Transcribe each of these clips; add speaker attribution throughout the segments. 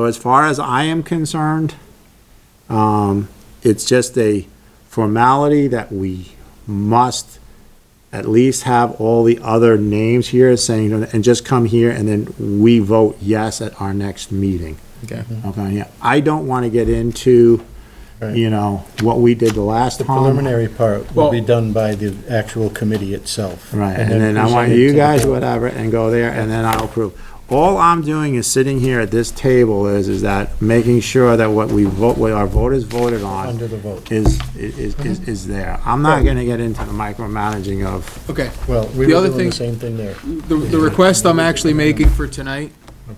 Speaker 1: So as far as I am concerned, um, it's just a formality that we must at least have all the other names here saying, and just come here and then we vote yes at our next meeting.
Speaker 2: Okay.
Speaker 1: Okay, yeah. I don't want to get into,
Speaker 3: Right.
Speaker 1: you know, what we did the last
Speaker 3: The
Speaker 1: time.
Speaker 3: preliminary part will be
Speaker 2: Well-
Speaker 3: done by the actual committee itself.
Speaker 1: Right, and then I want
Speaker 3: present it
Speaker 1: you
Speaker 3: to the
Speaker 1: guys,
Speaker 3: board.
Speaker 1: whatever, and go there, and then I'll approve. All I'm doing is sitting here at this table is, is that making sure that what we vote, what our voters voted on.
Speaker 3: Under Mhm. the vote.
Speaker 1: Is, is, is, is there. I'm not gonna get into the micromanaging of,
Speaker 2: Okay,
Speaker 3: Well, we
Speaker 2: The
Speaker 3: were
Speaker 2: other
Speaker 3: doing the
Speaker 2: thing-
Speaker 3: same thing there.
Speaker 2: the, the request I'm actually making for tonight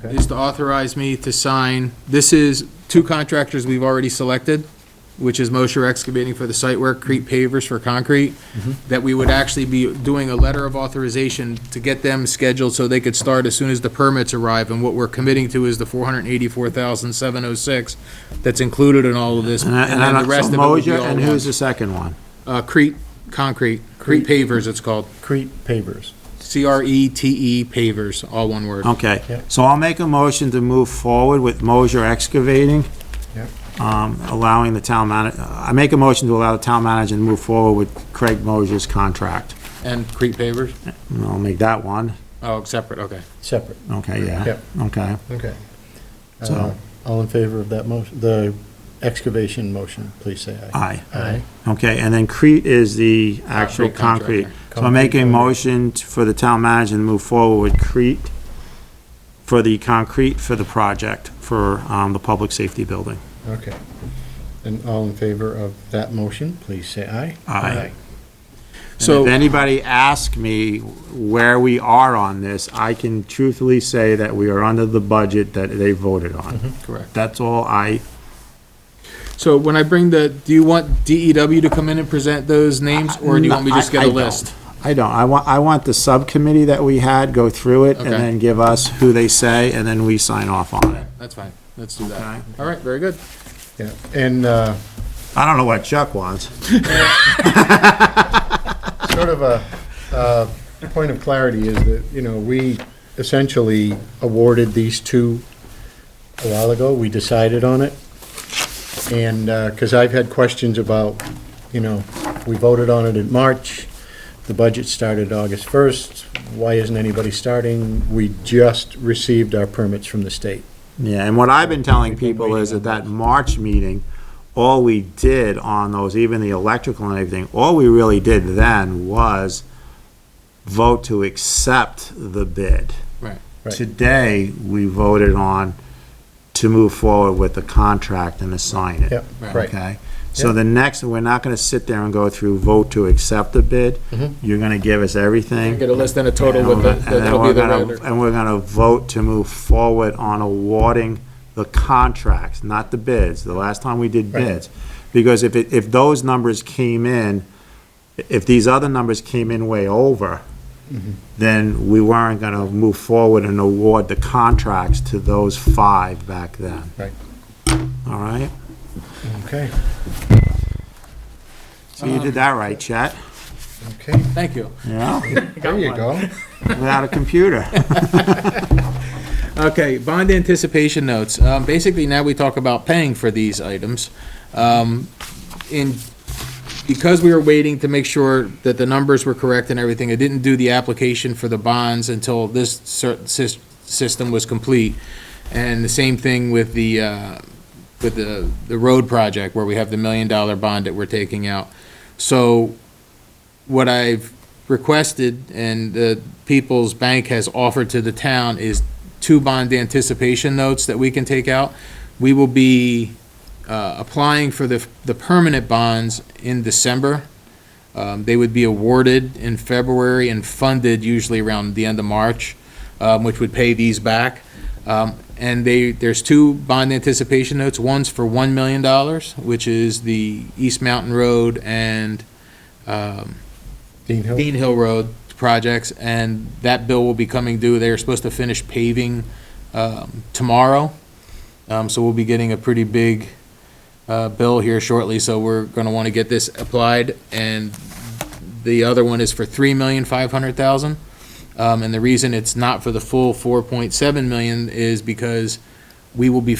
Speaker 3: Okay.
Speaker 2: is to authorize me to sign, this is two contractors we've already selected, which is Mosher Excavating for the site work, Crete Pavers for concrete,
Speaker 1: Mm-hmm.
Speaker 2: that we would actually be doing a letter of authorization to get them scheduled so they could start as soon as the permits arrive, and what we're committing to is the four hundred and eighty-four thousand seven oh six that's included in all of this,
Speaker 1: and
Speaker 2: and
Speaker 1: I, and
Speaker 2: then
Speaker 1: I
Speaker 2: the
Speaker 1: don't, so
Speaker 2: rest of it would be
Speaker 1: Moser,
Speaker 2: all
Speaker 1: and who's
Speaker 2: one.
Speaker 1: the second one?
Speaker 2: Uh, Crete, concrete, Crete Pavers it's called,
Speaker 3: Crete pavers.
Speaker 2: C-R-E-T-E E Pavers, all one word.
Speaker 1: Okay,
Speaker 3: Yep.
Speaker 1: so I'll make a motion to move forward with Moser Excavating.
Speaker 3: Yep.
Speaker 1: Um, allowing the town manager, I make a motion to allow the town manager to move forward with Craig Moser's contract.
Speaker 2: And Crete pavers?
Speaker 1: And I'll make that one.
Speaker 2: Oh, separate, okay.
Speaker 3: separate.
Speaker 1: Okay, Uh, yeah,
Speaker 3: Yep.
Speaker 1: okay.
Speaker 3: Okay. Uh,
Speaker 1: So-
Speaker 3: All in favor of that motion, the excavation motion, please say aye.
Speaker 1: Aye. Okay, and then Crete is the actual
Speaker 2: Concrete contractor.
Speaker 1: concrete. So I make a
Speaker 3: Concrete.
Speaker 1: motion t- for the town manager to move forward with Crete for the concrete for the project for, um, the public safety building.
Speaker 3: Okay. And all in favor of that motion, please say aye.
Speaker 1: Aye. And if
Speaker 2: So,
Speaker 1: anybody asks me where we are on this, I can truthfully say that we are under the budget that they voted on.
Speaker 2: correct.
Speaker 1: That's all I,
Speaker 2: So when I bring the, do you want DEW to come in and present those names, or do you want me to just get
Speaker 1: I-
Speaker 2: a
Speaker 1: I don't.
Speaker 2: list?
Speaker 1: I don't, I want, I want the subcommittee that we had go through it and
Speaker 2: Okay.
Speaker 1: then give us who they say and then we sign off on it.
Speaker 2: That's fine, let's do
Speaker 1: Okay.
Speaker 2: that. All right, very good.
Speaker 3: Yeah, and, uh,
Speaker 1: I don't know what Chuck wants.
Speaker 3: sort of a, uh, point of clarity is that, you know, we essentially awarded these two a while ago. We decided on it. And, uh cause I've had questions about, you know, we voted on it in March. The budget started August first. Why isn't anybody starting? We just received our permits from the state.
Speaker 1: Yeah, and what I've been telling
Speaker 3: We've been
Speaker 1: people is at
Speaker 3: waiting
Speaker 1: that March meeting, all we did on those, even the electrical and everything, all we really did then was vote to accept the bid.
Speaker 2: Right.
Speaker 3: Right.
Speaker 1: Today, we voted on to move forward with the contract and to sign it.
Speaker 3: Yep,
Speaker 2: Right.
Speaker 3: right.
Speaker 1: Okay? So
Speaker 3: Yep.
Speaker 1: the next, we're not gonna sit there and go through vote to accept the bid.
Speaker 3: Mhm.
Speaker 1: You're gonna give us everything.
Speaker 2: Get a list and a total
Speaker 1: And
Speaker 2: with
Speaker 1: we're
Speaker 2: the,
Speaker 1: gonna- and then
Speaker 2: that'll be
Speaker 1: we're
Speaker 2: the
Speaker 1: gonna-
Speaker 2: red.
Speaker 1: And we're gonna vote to move forward on awarding the contracts, not the bids, the last time we did
Speaker 3: Right.
Speaker 1: bids. Because if, it- if those numbers came in, if these other numbers came in way over, then we weren't gonna move forward and award the contracts to those five back then.
Speaker 3: Right.
Speaker 1: All right?
Speaker 3: Okay,
Speaker 1: So you did that right, Chet,
Speaker 3: okay.
Speaker 2: Thank you.
Speaker 1: yeah,
Speaker 3: There you go.
Speaker 1: without a computer.
Speaker 2: Okay, bond anticipation notes. Um, basically, now we talk about paying for these items. Um, in, because we were waiting to make sure that the numbers were correct and everything, I didn't do the application for the bonds until this cer- sys- system was complete. And the same thing with the, uh, with the, the road project where we have the million dollar bond that we're taking out. So what I've requested and the People's Bank has offered to the town is two bond anticipation notes that we can take out. We will be uh, applying for the, the permanent bonds in December. Um, They would be awarded in February and funded usually around the end of March, um, which would pay these back. Um, And they, there's two bond anticipation notes. One's for $1 million, which is the East Mountain Road and um,
Speaker 3: Dean Hill?
Speaker 2: Dean Hill Road projects, and that bill will be coming due. They are supposed to finish paving um, tomorrow, Um, so we'll be getting a pretty big uh, bill here shortly, so we're going to want to get this applied. And the other one is for three million five hundred thousand. Um, And the reason it's not for the full four point seven million is because we will be